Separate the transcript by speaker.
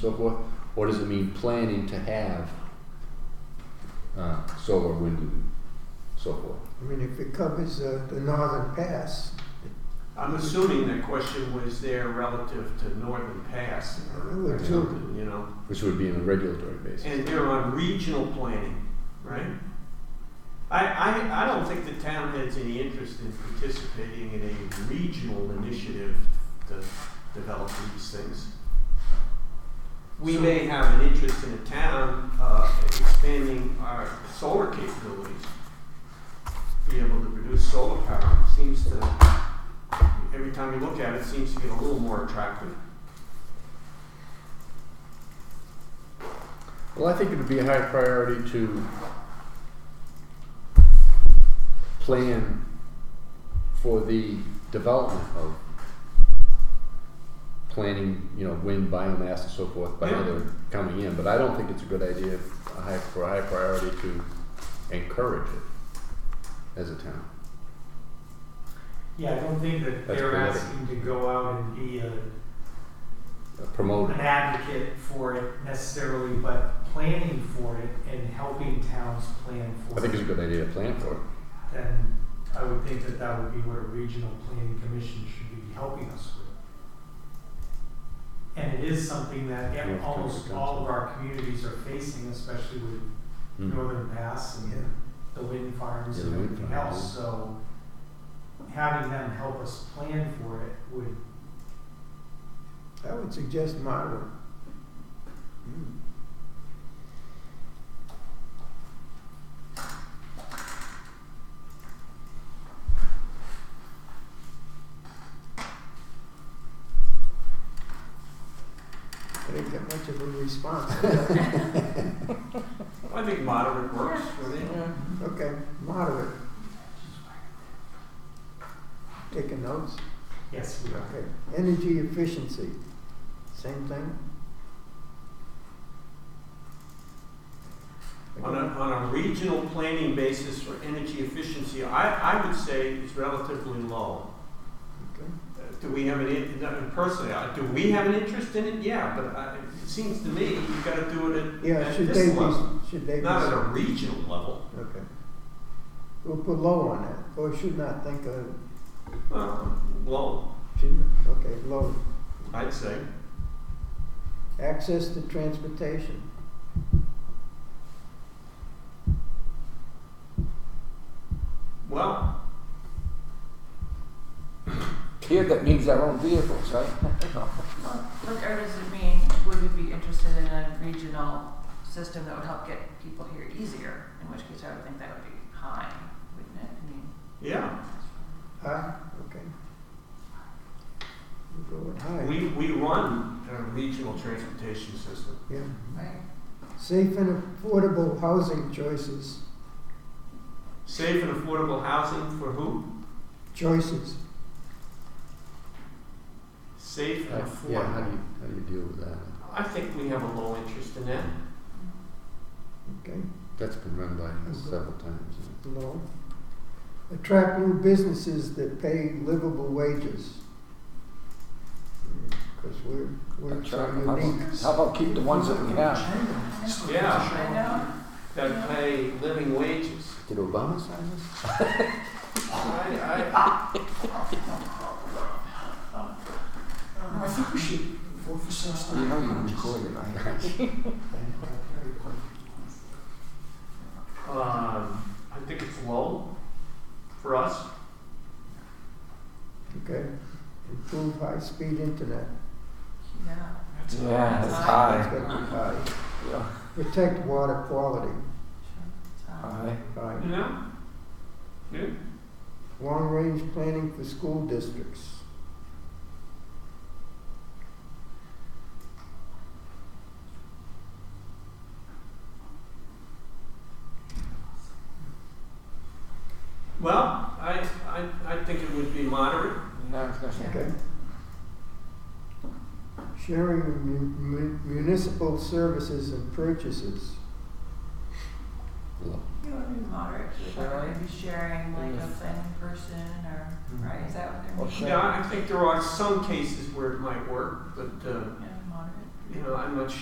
Speaker 1: so forth? Or does it mean planning to have uh, solar, wind, and so forth?
Speaker 2: I mean, if it covers uh, the northern pass,
Speaker 3: I'm assuming that question was there relative to Northern Pass
Speaker 2: I
Speaker 3: or
Speaker 2: would too.
Speaker 3: something, you know?
Speaker 1: Which would be on a regulatory basis.
Speaker 3: And they're on regional planning, right? I, I, I don't think the town has any interest in participating in a regional initiative to develop these things. We may have an interest in a town, uh, expanding our solar capabilities. Be able to produce solar power seems to, every time you look at it, seems to get a little more attractive.
Speaker 1: Well, I think it would be a high priority to plan for the development of planning, you know, wind, biomass and so forth by
Speaker 3: Yeah.
Speaker 1: other coming in, but I don't think it's a good idea, a high, for a high priority to encourage it as a town.
Speaker 4: Yeah, I don't think that
Speaker 1: That's
Speaker 4: they're
Speaker 1: political.
Speaker 4: asking to go out and be a,
Speaker 1: uh, promote
Speaker 4: an
Speaker 1: it.
Speaker 4: advocate for it necessarily, but planning for it and helping towns plan
Speaker 1: I
Speaker 4: for
Speaker 1: think it's a
Speaker 4: it.
Speaker 1: good idea to plan for it.
Speaker 4: Then I would think that that would be what a regional planning commission should be helping us with. And it is something that yeah,
Speaker 1: North Country
Speaker 4: almost all
Speaker 1: Council.
Speaker 4: of our communities are facing, especially with
Speaker 1: Mm.
Speaker 4: Northern Pass and
Speaker 2: Yeah.
Speaker 4: the wind farms
Speaker 1: Yeah,
Speaker 4: and
Speaker 1: the wind
Speaker 4: everything
Speaker 1: farms,
Speaker 4: else, so having them help us plan for it would
Speaker 2: I would suggest moderate. Hmm. I didn't get much of a response.
Speaker 3: I think moderate works for me.
Speaker 2: Okay, moderate. Taking notes.
Speaker 4: Yes, we are.
Speaker 2: Okay, energy efficiency, same thing?
Speaker 3: On a, on a regional planning basis for energy efficiency, I, I would say is relatively low.
Speaker 2: Okay.
Speaker 3: Uh, Do we have an, in- no, personally, uh, do we have an interest in it? Yeah, but I- it seems to me you've got to do it at,
Speaker 2: Yeah,
Speaker 3: at
Speaker 2: should they
Speaker 3: this
Speaker 2: be,
Speaker 3: level,
Speaker 2: should they be,
Speaker 3: not at a regional level.
Speaker 2: okay. We'll put low on that, or should not think of,
Speaker 3: Well, low,
Speaker 2: shouldn't, okay, low.
Speaker 3: I'd say.
Speaker 2: Access to transportation.
Speaker 3: Well,
Speaker 5: Here, that means our own vehicles, right?
Speaker 6: What or does it mean, would we be interested in a regional system that would help get people here easier? In which case I would think that would be high, wouldn't it? I mean,
Speaker 3: yeah,
Speaker 2: High, okay. We'll go with high,
Speaker 3: we, we run a regional transportation system.
Speaker 2: yeah.
Speaker 6: right?
Speaker 2: Safe and affordable housing choices,
Speaker 3: Safe and affordable housing for who?
Speaker 2: choices.
Speaker 3: Safe and
Speaker 1: Uh, Yeah, how do
Speaker 3: affordable.
Speaker 1: you, how do you deal with that?
Speaker 3: I think we have a low interest in that.
Speaker 2: Okay,
Speaker 1: That's been run by us several times. isn't it?
Speaker 2: no. Attract new businesses that pay livable wages. Because we're, we're so
Speaker 5: Sure. How
Speaker 2: unique.
Speaker 5: about- How about keep the ones that we have?
Speaker 3: Yeah.
Speaker 6: I know,
Speaker 3: that pay living wages.
Speaker 1: Did Obama sign this?
Speaker 3: I,
Speaker 7: I think we should vote for
Speaker 5: You
Speaker 7: Saskia.
Speaker 5: know you recorded, right?
Speaker 3: I, um, I think it's low for us.
Speaker 2: Okay. Improve high-speed internet.
Speaker 6: yeah.
Speaker 7: That's a-
Speaker 5: Yeah, that's
Speaker 2: That's
Speaker 5: high.
Speaker 2: gotta be high.
Speaker 5: Yeah.
Speaker 2: Protect water quality.
Speaker 6: So,
Speaker 5: High.
Speaker 2: High.
Speaker 3: You know? Good.
Speaker 2: Long-range planning for school districts.
Speaker 3: Well, I, I, I think it would be moderate.
Speaker 5: Yeah, I was gonna say.
Speaker 2: Okay. Sharing of mu- mu- municipal services and purchases.
Speaker 1: Low.
Speaker 6: You want to be moderate, or
Speaker 5: Sharing.
Speaker 6: maybe sharing like a planning person or, right, is that what they're
Speaker 5: Mm-hmm. Well,
Speaker 6: meaning?
Speaker 5: sure.
Speaker 3: Yeah, I think there are some cases where it might work, but, uh,
Speaker 6: Yeah, moderate.
Speaker 3: you know, I'm not